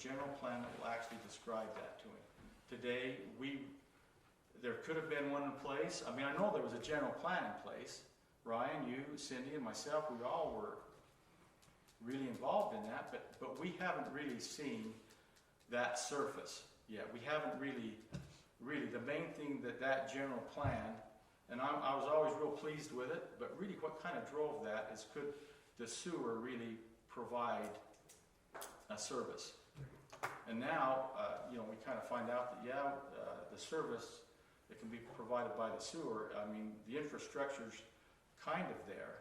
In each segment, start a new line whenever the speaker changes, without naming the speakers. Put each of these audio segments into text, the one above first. general plan that will actually describe that to him. Today, we, there could have been one in place, I mean, I know there was a general plan in place. Ryan, you, Cindy, and myself, we all were really involved in that, but, but we haven't really seen that surface yet. We haven't really, really, the main thing that that general plan, and I'm, I was always real pleased with it, but really what kind of drove that is could the sewer really provide a service? And now, uh, you know, we kind of find out that, yeah, uh, the service that can be provided by the sewer, I mean, the infrastructure's kind of there.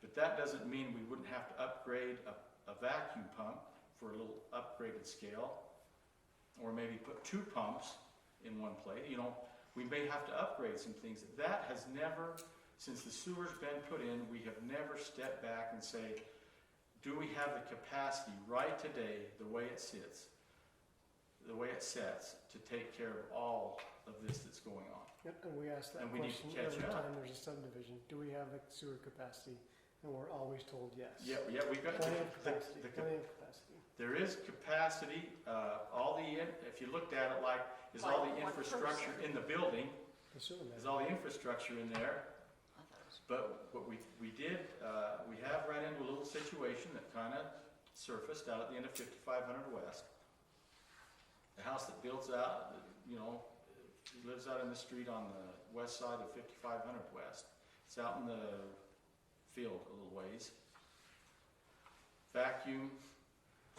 But that doesn't mean we wouldn't have to upgrade a, a vacuum pump for a little upgraded scale. Or maybe put two pumps in one place, you know, we may have to upgrade some things. That has never, since the sewer's been put in, we have never stepped back and say, do we have the capacity right today, the way it sits, the way it sets, to take care of all of this that's going on?
Yep, and we ask that
And we need to
question
catch
every
up.
time there's a subdivision, do we have the sewer capacity? And we're always told yes.
Yeah, yeah, we've got the,
Plenty of
the,
capacity,
the,
plenty of capacity.
There is capacity, uh, all the, in- if you looked at it like, is all the
Like one
infrastructure
person.
in the building?
The sewer
Is
man,
all the infrastructure in there?
I thought it was-
But what we, we did, uh, we have ran into a little situation that kind of surfaced out at the end of fifty-five hundred west. The house that builds out, you know, he lives out in the street on the west side of fifty-five hundred west. It's out in the field a little ways. Vacuum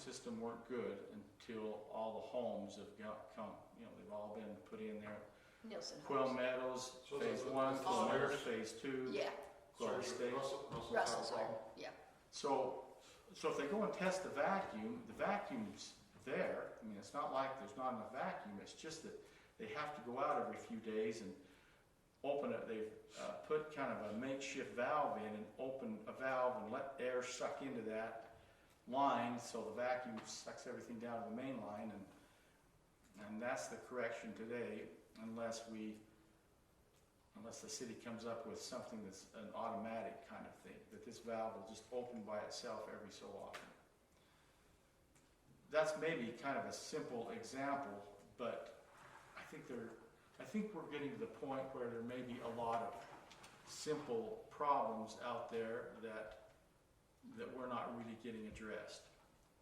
system worked good until all the homes have got, come, you know, they've all been put in there.
Nielsen
Quill
Homes.
Meadows,
So
phase
those are-
one,
are
those
Quill Meadows,
theirs?
phase two.
Yeah,
Sorry, State.
Russell, Russell.
Russell Sawyer, yeah.
So, so if they go and test the vacuum, the vacuum's there. I mean, it's not like there's not enough vacuum. It's just that they have to go out every few days and open it. They've uh, put kind of a makeshift valve in and open a valve and let air suck into that line, so the vacuum sucks everything down to the main line, and and that's the correction today, unless we unless the city comes up with something that's an automatic kind of thing, that this valve will just open by itself every so often. That's maybe kind of a simple example, but I think there, I think we're getting to the point where there may be a lot of simple problems out there that, that we're not really getting addressed.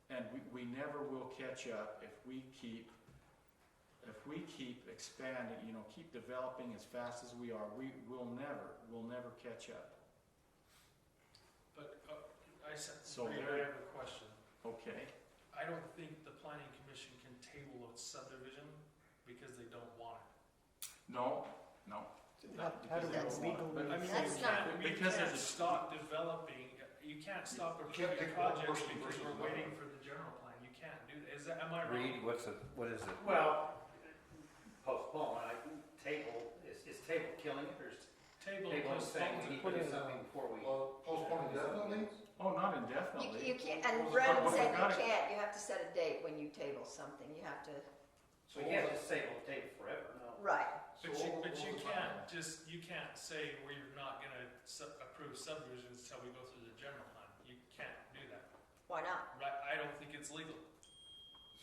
And we, we never will catch up if we keep if we keep expanding, you know, keep developing as fast as we are, we will never, we'll never catch up.
But uh, I said,
So
Mayor,
there-
I have a question.
Okay,
I don't think the planning commission can table a subdivision because they don't want it.
no, no.
how, how do
That's-
we legally?
I mean,
That's
you
not-
can't, I mean, you
Because
can't
there's a-
stop developing, you can't stop
You can't
approving
take one
projects
person
because
versus
we're
another.
waiting for the general plan. You can't do that. Is that, am I
Read,
wrong?
what's it, what is it?
Well, postpone, I, table, is, is table killing it, or is
Table
table saying
postponed.
we need to
Put
do
it,
something before we?
Well, postpone indefinitely?
Oh, not
You,
indefinitely.
you can't,
Well,
and
the
Brennan
problem-
said
Got it.
you can't, you have to set a date when you table something, you have to,
So you can't just say, well, table forever, no.
right.
So what-
But you,
what
but
was
you
the
can't
timeline?
just, you can't say we're not gonna sub- approve subdivisions until we go through the general plan. You can't do that.
Why not?
Right, I don't think it's legal.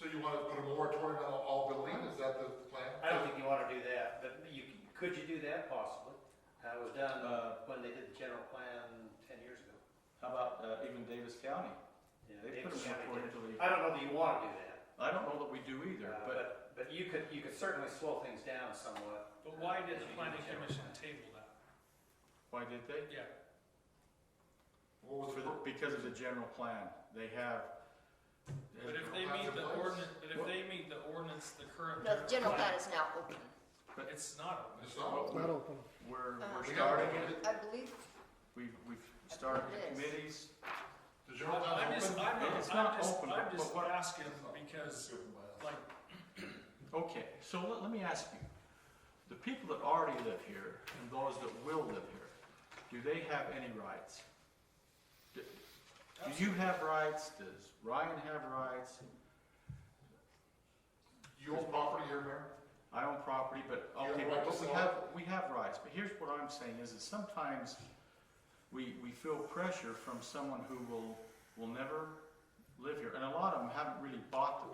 So you wanna put a moratorium on all building, is that the plan?
I don't think you wanna do that, but you, c- could you do that possibly? That was done, uh, when they did the general plan ten years ago.
How about, uh, even Davis County?
You know,
They
David
put a
County
moratorium
did.
till
I don't know that you wanna do that,
they, I don't know that we do either,
uh,
but
but, but you could, you could certainly slow things down somewhat.
But why did the
as you do
planning
general
commission
plan.
table that?
why did they?
Yeah,
What was
For
the,
the,
pro-
because of the general plan, they have.
But if they
General plan's
meet the
in place?
ordinance, but if they meet the ordinance, the current.
No, the general plan is now open.
It's not open.
it's not,
Not open.
We're,
Uh-huh.
we're starting it,
I believe,
we've, we've started the
It is.
committees.
the general plan
I'm just,
open?
I'm,
It's
not-
not
I'm just,
open,
I'm
but
just
what-
asking because, like,
Okay, so let, let me ask you, the people that already live here and those that will live here, do they have any rights? Do do you have rights? Does Ryan have rights?
You own property here, Mayor?
I own property, but,
You have
okay,
a right
but
to
we
sell.
have, we have rights, but here's what I'm saying is that sometimes we, we feel pressure from someone who will, will never live here, and a lot of them haven't really bought the